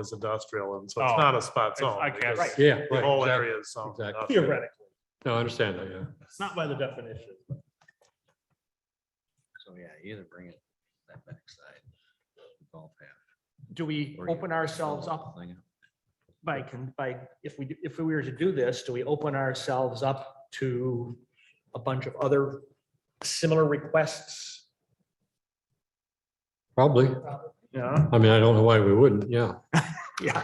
is industrial and so Oh, it's not a spot I- zone. I guess. because Right. Yeah. The right, whole exactly. area is zoned. exactly. industrial. theoretically, No, I understand that, yeah. it's not by the definition. So yeah, either bring it that backside. the Golf path. do we or you open fill ourselves the up thing by, con- by, if we, do- if we were to do this, do we open ourselves up to a bunch of other similar requests? Probably. Yeah. I mean, I don't know why we wouldn't, yeah. Yeah.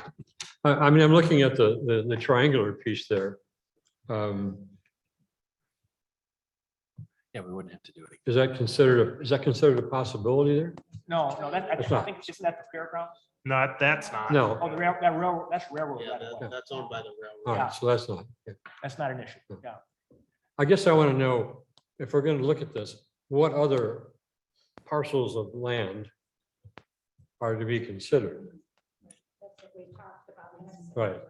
I, I mean, I'm looking at the, the, the triangular piece there. Um, Yeah, we wouldn't have to do it. Is that considered, a is that considered a possibility there? No, no, that, It's not. think, isn't that the fairground? Not, that's not. No, Oh, the rail, that railroad, that's railroad. Yeah, right of way. that- that's owned by the Oh, all railroad. right, so that's not. yeah. That's not an issue, yeah. I guess I want to know, if we're going to look at this, what other parcels of land are to be considered? That's what we talked about. Right.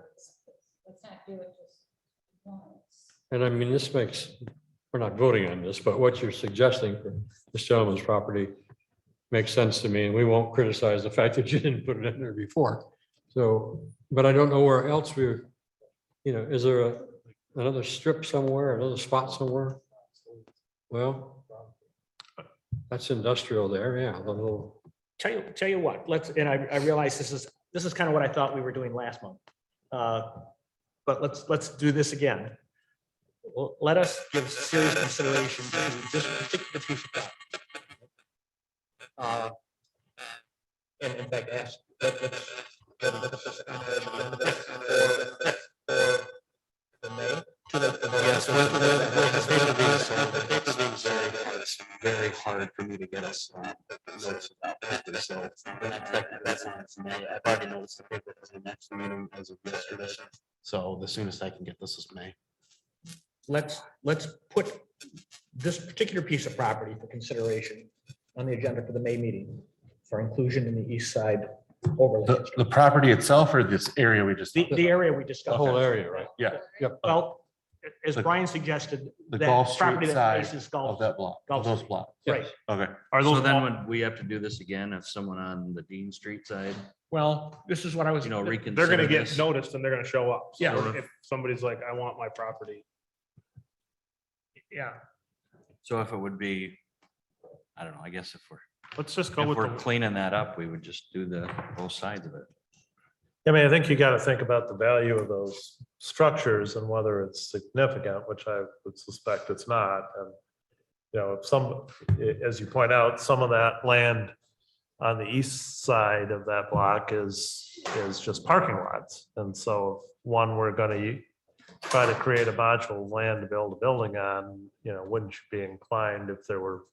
Let's not do it just once. And I mean, this makes, we're not voting on this, but what you're suggesting for this gentleman's property makes sense to me, and we won't criticize the fact that you didn't put it in there before. So, but I don't know where else we, you know, is there a- another strip somewhere, another spot somewhere? Well, that's industrial there, yeah, the little, Tell you, tell you what, let's, and I, I realize this is, this is kind of what I thought we were doing last month. Uh, But let's, let's do this again. Well, Let us give serious consideration to this particular piece of property. Uh, And in fact, ask. let- let's- let- let's just kind of amend this for- for the May, to the- the- Yes, with, with, with the paper being so, the paper being very, hard, it's very hard for me to get us. um, notice about paper, So the next, that- that's on its May. I've already noticed the paper for the next meeting as of yesterday. So the soonest I can get this is May. let's, let's put this particular piece of property for consideration on the agenda for the May meeting for inclusion in the east side overlay. The, district. the property itself or this area we just, The, the area we the discussed. whole area, right? yeah, Well, as The- Brian suggested. the that Gulf property Street that side faces of Gulf- that block, Gulf of those Street. blocks. Right, Okay. Are So those, then all- would we have to do this again if someone on the Dean Street side, well, this is what I was. you know, reconsider? they're gonna get this? noticed and they're gonna show up. So Yeah. If somebody's like, I want my property. Yeah, So if it would be, I don't know, I guess if we're, let's just go if with we're the, cleaning that up, we would just do the both sides of it. I mean, I think you got to think about the value of those structures and whether it's significant, which I would suspect it's not. And, you know, if some, i- as you point out, some of that land on the east side of that block is, is just parking lots. And so if one, we're going to try to create a module of land to build a building on, you know, wouldn't you be inclined if there were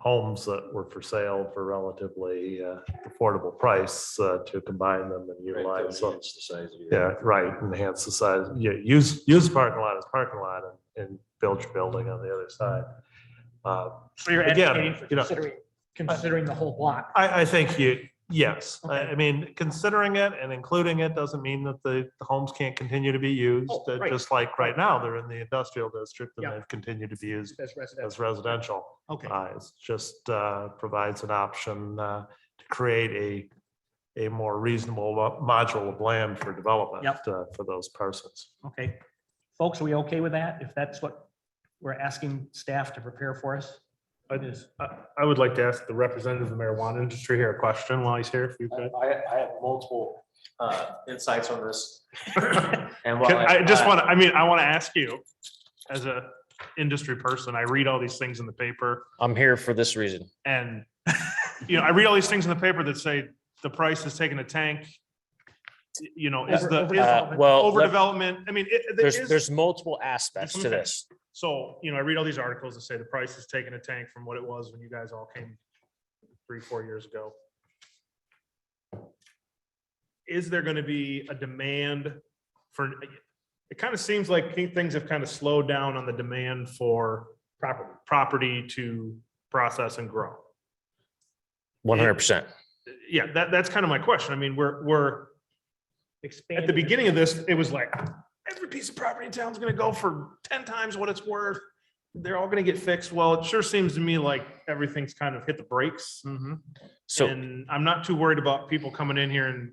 homes that were for sale for relatively uh, affordable price uh, to combine them and utilize them? It's the size of your- Yeah, right, enhance the size, yeah, use, use the parking lot as parking lot and, and build your building on the other side. Uh, So you're Again, advocating for you know- considering, considering the whole block. I, I think you, yes, I, Okay. I mean, considering it and including it doesn't mean that the, the homes can't continue to be used. Oh, uh, right. Just like right now, they're in the industrial district and Yeah. they've continued to be used As residential, as residential. okay. Uh, It's just uh, provides an option uh, to create a, a more reasonable mo- module of land for development Yep. uh, for those persons. Okay. Folks, are we okay with that? If that's what we're asking staff to prepare for us? I just, I, I would like to ask the representative of the marijuana industry here a question while he's here, if you could. I, I have multiple uh, insights on this. And uh, Can- I just want to, I mean, I want to ask you, as a industry person, I read all these things in the paper I'm here for this reason. and, you know, I read all these things in the paper that say the price is taking a tank. You know, is the, Over- is Uh, Well, let- overdevelopment, I mean, it, it there's, is- there's multiple aspects to this. So, you know, I read all these articles that say the price is taking a tank from what it was when you guys all came three, four years ago. Is there gonna be a demand for, it kind of seems like things have kind of slowed down on the demand for property, property to process and grow. One hundred percent. Yeah, that, that's kind of my question. I mean, we're, we're, at Expand. the beginning of this, it was like, every piece of property in town's gonna go for ten times what it's worth. They're all gonna get fixed. Well, it sure seems to me like everything's kind of hit the brakes. Mhm. So And I'm not too worried about people coming in here and